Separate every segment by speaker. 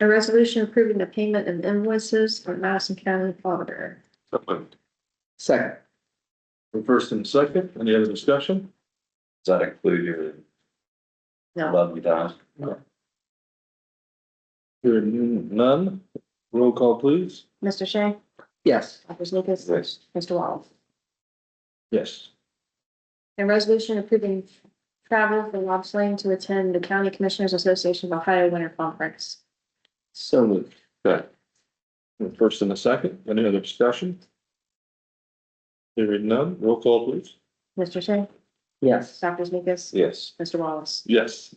Speaker 1: A resolution approving the payment of invoices for Madison County Auditor.
Speaker 2: So moved.
Speaker 3: Second.
Speaker 4: First and second, any other discussion?
Speaker 2: Does that include your
Speaker 1: No,
Speaker 2: love you down?
Speaker 4: Hearing none, roll call please.
Speaker 1: Mr. Shea,
Speaker 3: Yes.
Speaker 1: Dr. Lucas,
Speaker 2: Yes.
Speaker 1: Mr. Wallace.
Speaker 4: Yes.
Speaker 1: A resolution approving travel for Lob Lane to attend the County Commissioners Association of Ohio Winter Conference.
Speaker 3: So moved.
Speaker 2: Good.
Speaker 4: First and a second, any other discussion? Hearing none, roll call please.
Speaker 1: Mr. Shea,
Speaker 3: Yes.
Speaker 1: Dr. Lucas,
Speaker 2: Yes.
Speaker 1: Mr. Wallace.
Speaker 4: Yes.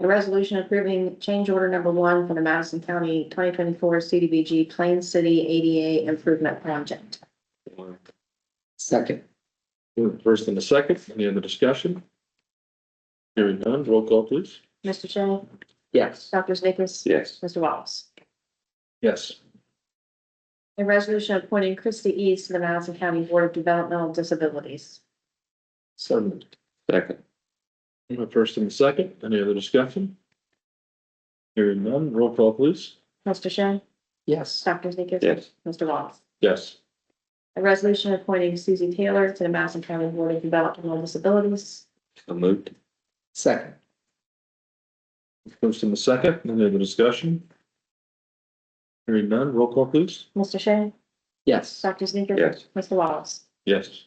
Speaker 1: A resolution approving change order number one for the Madison County twenty twenty-four CDBG Plain City ADA Improvement Project.
Speaker 3: Second.
Speaker 4: First and a second, any other discussion? Hearing none, roll call please.
Speaker 1: Mr. Shea,
Speaker 3: Yes.
Speaker 1: Dr. Lucas,
Speaker 2: Yes.
Speaker 1: Mr. Wallace.
Speaker 4: Yes.
Speaker 1: A resolution appointing Christy East to the Madison County Board of Developmental Disabilities.
Speaker 3: So moved.
Speaker 2: Second.
Speaker 4: First and second, any other discussion? Hearing none, roll call please.
Speaker 1: Mr. Shea,
Speaker 3: Yes.
Speaker 1: Dr. Sneakers,
Speaker 2: Yes.
Speaker 1: Mr. Wallace.
Speaker 4: Yes.
Speaker 1: A resolution appointing Susie Taylor to the Madison County Board of Developmental Disabilities.
Speaker 2: So moved.
Speaker 3: Second.
Speaker 4: First and second, any other discussion? Hearing none, roll call please.
Speaker 1: Mr. Shea,
Speaker 3: Yes.
Speaker 1: Dr. Sneakers,
Speaker 2: Yes.
Speaker 1: Mr. Wallace.
Speaker 4: Yes.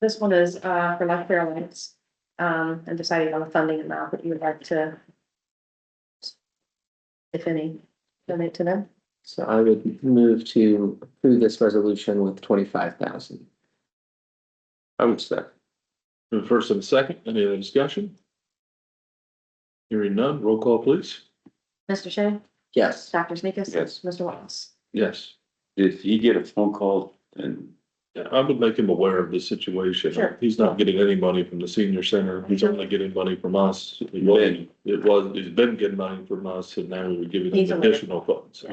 Speaker 1: This one is uh for Life Care Alliance, um, and deciding on the funding amount that you would like to. If any, donate to them.
Speaker 3: So I would move to approve this resolution with twenty-five thousand.
Speaker 2: I would second.
Speaker 4: First and second, any other discussion? Hearing none, roll call please.
Speaker 1: Mr. Shea,
Speaker 3: Yes.
Speaker 1: Dr. Sneakers.
Speaker 2: Yes.
Speaker 1: Mr. Wallace.
Speaker 4: Yes.
Speaker 2: If you get a phone call and
Speaker 4: Yeah, I would make him aware of the situation.
Speaker 1: Sure.
Speaker 4: He's not getting any money from the senior center. He's
Speaker 1: Sure.
Speaker 4: only getting money from us. It was, it was, he's been getting money from us and now we were giving
Speaker 1: He's
Speaker 4: him
Speaker 1: aware.
Speaker 4: additional funds.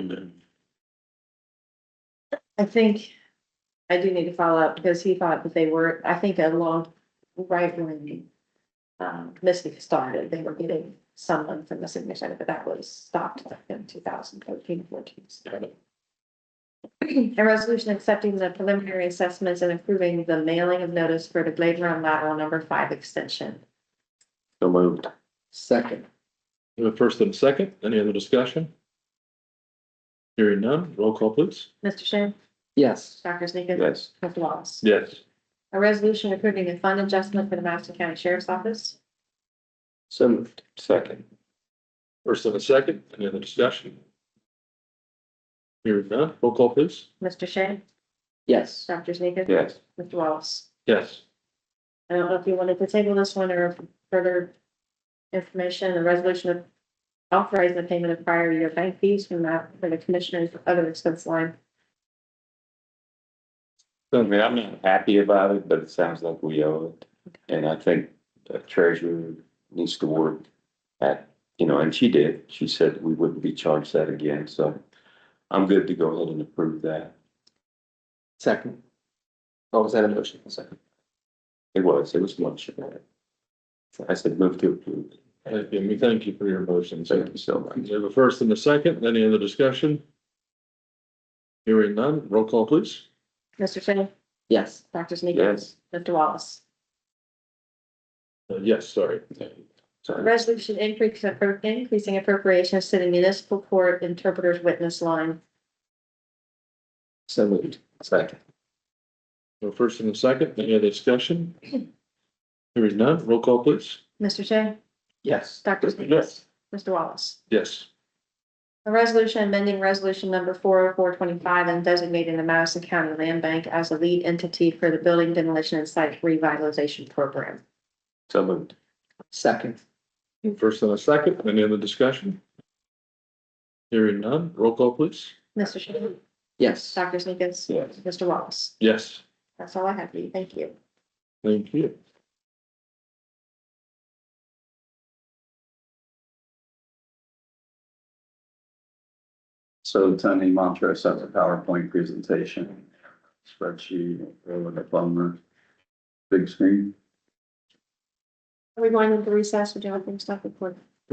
Speaker 1: I think I do need to follow up because he thought that they were, I think along right when um, Misty started, they were getting someone from the senior center, but that was stopped in 2013-14.
Speaker 4: Got it.
Speaker 1: A resolution accepting the preliminary assessments and approving the mailing of notice for the Blade Run lateral number five extension.
Speaker 2: so moved.
Speaker 3: Second.
Speaker 4: We have a First and a second, any other discussion? Hearing none, roll call please.
Speaker 1: Mr. Shane,
Speaker 3: Yes.
Speaker 1: Dr. Sneakus,
Speaker 2: Yes.
Speaker 1: Mr. Wallace.
Speaker 4: Yes.
Speaker 1: A resolution approving a fund adjustment for the Madison County Sheriff's Office.
Speaker 3: So moved.
Speaker 2: Second.
Speaker 4: First and a second, any other discussion? Hearing none, roll call please.
Speaker 1: Mr. Shane,
Speaker 3: Yes.
Speaker 1: Dr. Sneakus,
Speaker 2: Yes.
Speaker 1: Mr. Wallace.
Speaker 4: Yes.
Speaker 1: I don't know if you wanted to table this one or further information, the resolution of authorizing the payment of prior year bank fees from that, for the commissioners other expense line.
Speaker 2: I mean, I'm not happy about it, but it sounds like we owe it. And I think the treasurer needs to work at, you know, and she did. She said we wouldn't be charged that again, so I'm good to go ahead and approve that.
Speaker 3: Second. Oh, was that a motion? Second.
Speaker 2: It was, it was much of that. I said move to approve.
Speaker 4: Thank you, and we thank you for your motion.
Speaker 2: Thank you so much.
Speaker 4: We have a first and a second, any other discussion? Hearing none, roll call please.
Speaker 1: Mr. Shea,
Speaker 3: Yes.
Speaker 1: Dr. Sneakers,
Speaker 2: Yes.
Speaker 1: Mr. Wallace.
Speaker 4: Uh, Yes, sorry.
Speaker 2: Sorry.
Speaker 1: Resolution increase, appro- increasing appropriations to the municipal court interpreter's witness line.
Speaker 3: So moved.
Speaker 2: Second.
Speaker 4: So First and a second, any other discussion? Hearing none, roll call please.
Speaker 1: Mr. Shea,
Speaker 3: Yes.
Speaker 1: Dr. Sneakers, Mr. Wallace.
Speaker 4: Yes.
Speaker 1: A resolution amending resolution number four oh four twenty-five and designating the Madison County Land Bank as a lead entity for the building demolition and site revitalization program.
Speaker 2: So moved.
Speaker 3: Second.
Speaker 4: First and a second, any other discussion? Hearing none, roll call please.
Speaker 1: Mr. Shea,
Speaker 3: Yes.
Speaker 1: Dr. Sneakers,
Speaker 2: Yes.
Speaker 1: Mr. Wallace,
Speaker 4: Yes,
Speaker 1: that's all I have for you, thank you.
Speaker 4: thank you.
Speaker 5: So Tony Montrose has a PowerPoint presentation, spreadsheet, with a bummer, big screen.
Speaker 1: Are we going into recess, would you like to stop recording?